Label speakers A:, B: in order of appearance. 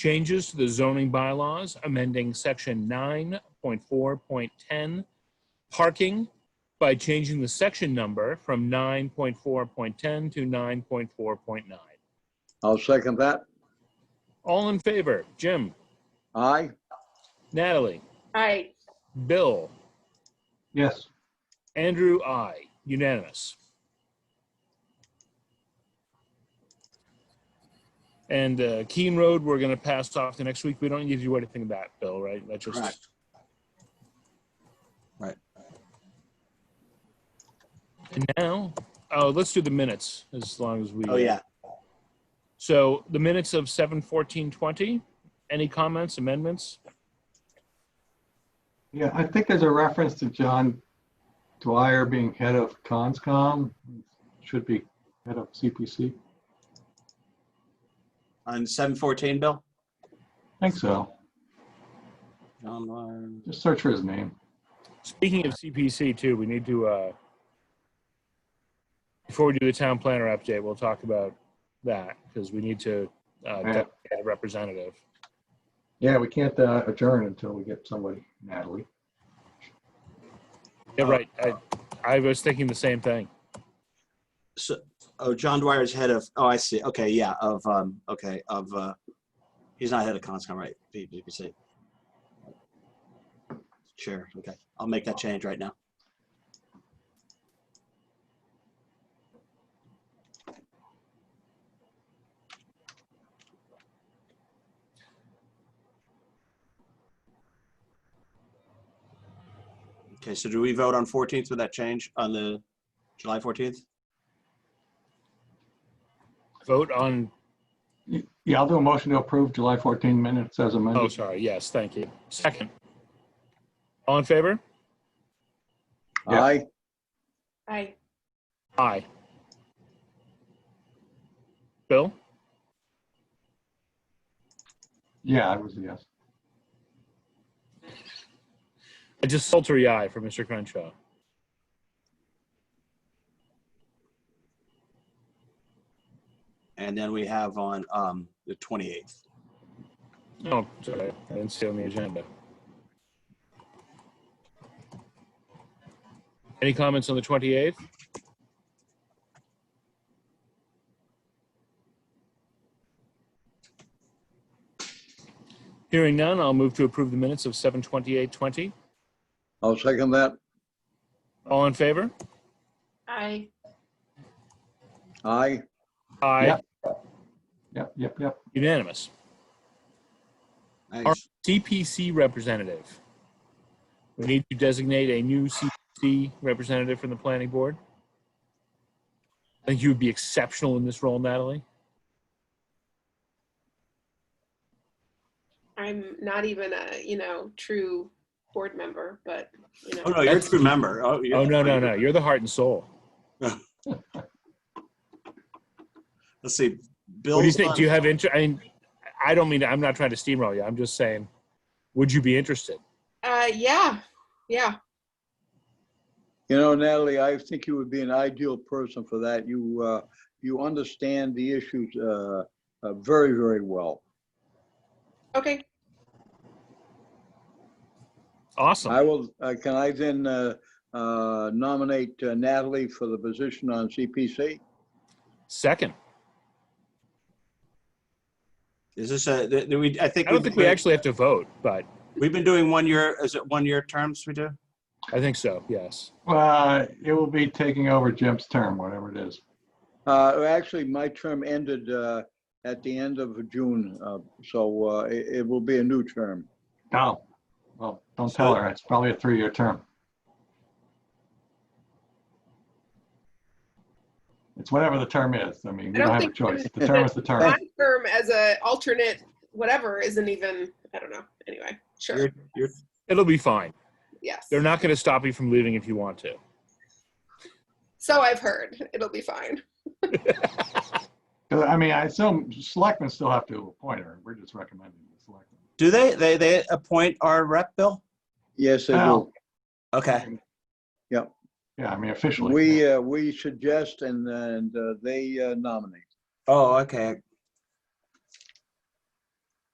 A: changes to the zoning bylaws, amending section nine point four point ten, parking by changing the section number from nine point four point ten to nine point four point nine.
B: I'll second that.
A: All in favor, Jim,
B: Aye.
A: Natalie,
C: aye,
A: Bill,
D: yes,
A: Andrew, I, unanimous. And uh, Keene Road, we're going to pass off to next week. We don't need to do anything about it, Bill, right? That
B: Correct.
A: just.
B: Right.
A: And now, oh, let's do the minutes as long as we.
B: Oh, yeah.
A: So the minutes of seven fourteen twenty. Any comments, amendments?
D: yeah, I think there's a reference to John Dwyer being head of ConsCom, should be head of CPC,
E: On seven fourteen, Bill?
D: I think so,
E: John Lawyer.
D: just search for his name.
A: Speaking of CPC too, we need to, uh, before we do the town planner update, we'll talk about that because we need to, uh,
D: Yeah.
A: get a representative.
D: Yeah, we can't uh, adjourn until we get somebody, Natalie.
A: Yeah, right. I, I was thinking the same thing.
E: So, oh, John Dwyer's head of, oh, I see. Okay, yeah, of, um, okay, of, uh, he's not head of Conscom, right? PPC. Sure, okay. I'll make that change right now. Okay, so do we vote on 14th with that change on the July 14th?
A: Vote on,
D: Yeah, I'll do a motion to approve July 14 minutes as
A: oh,
D: amended.
A: sorry. Yes, thank you. Second. All in favor?
D: Yeah.
B: Aye.
C: aye,
A: Aye. Bill?
D: Yeah, I was, a yes.
A: A desultory aye for Mr. Crenshaw.
E: And then we have on um, the 28th.
A: Oh, sorry. I didn't see it on the agenda. Any comments on the 28th? Hearing none, I'll move to approve the minutes of 7:28:20.
B: I'll second that.
A: All in favor?
C: aye,
B: Aye.
A: Aye.
D: Yep. Yep, yep, yep.
A: Unanimous. Oh,
E: Nice.
A: CPC representative. We need to designate a new CPC representative from the planning board. I think you would be exceptional in this role, Natalie.
C: I'm not even a, you know, true board member, but, you know.
E: Oh, no, you're a true member. Oh, you're-
A: Oh, no, no, no. You're the heart and soul.
E: Let's see. Bill.
A: What do you think? Do you have interest? I mean, I don't mean, to- I'm not trying to steamroll you. I'm just saying, would you be interested?
C: Uh, yeah, yeah,
B: You know, Natalie, I think you would be an ideal person for that. You, uh, you understand the issues, uh, uh, very, very well.
C: okay,
B: I
A: Awesome.
B: will, uh, can I then, uh, uh, nominate uh, Natalie for the position on CPC?
A: Second.
E: Is this a, th- th- we, I think.
A: I don't think
E: we've been
A: we
E: doing-
A: actually have to vote, but
E: We've been doing one year, is it one year terms we do?
A: I think so. Yes.
D: Uh, It will be taking over Jim's term, whatever it is.
B: Uh, actually, my term ended, uh, at the end of June, uh, so, uh, it, it will be a new term.
D: No, well, don't tell her. It's probably a three-year term. It's whatever the term is. I mean,
C: I
D: we don't
C: don't
D: have a
C: think we're
D: choice. The term is the term.
C: my firm as a alternate, whatever, isn't even, I don't know, anyway, sure,
E: You're- you're-
A: It'll be fine.
C: yes.
A: They're not going to stop you from leaving if you want to.
C: So I've heard, it'll be fine,
D: 'Cause, I mean, I assume selectmen still have to appoint her. We're just recommending the selectmen.
E: Do they, they, they appoint our rep, Bill?
B: Yes, I do.
D: Now,
E: Okay.
D: Yeah, I mean officially.
B: We, uh, we suggest and, and uh, they uh, nominate.
E: Oh, okay.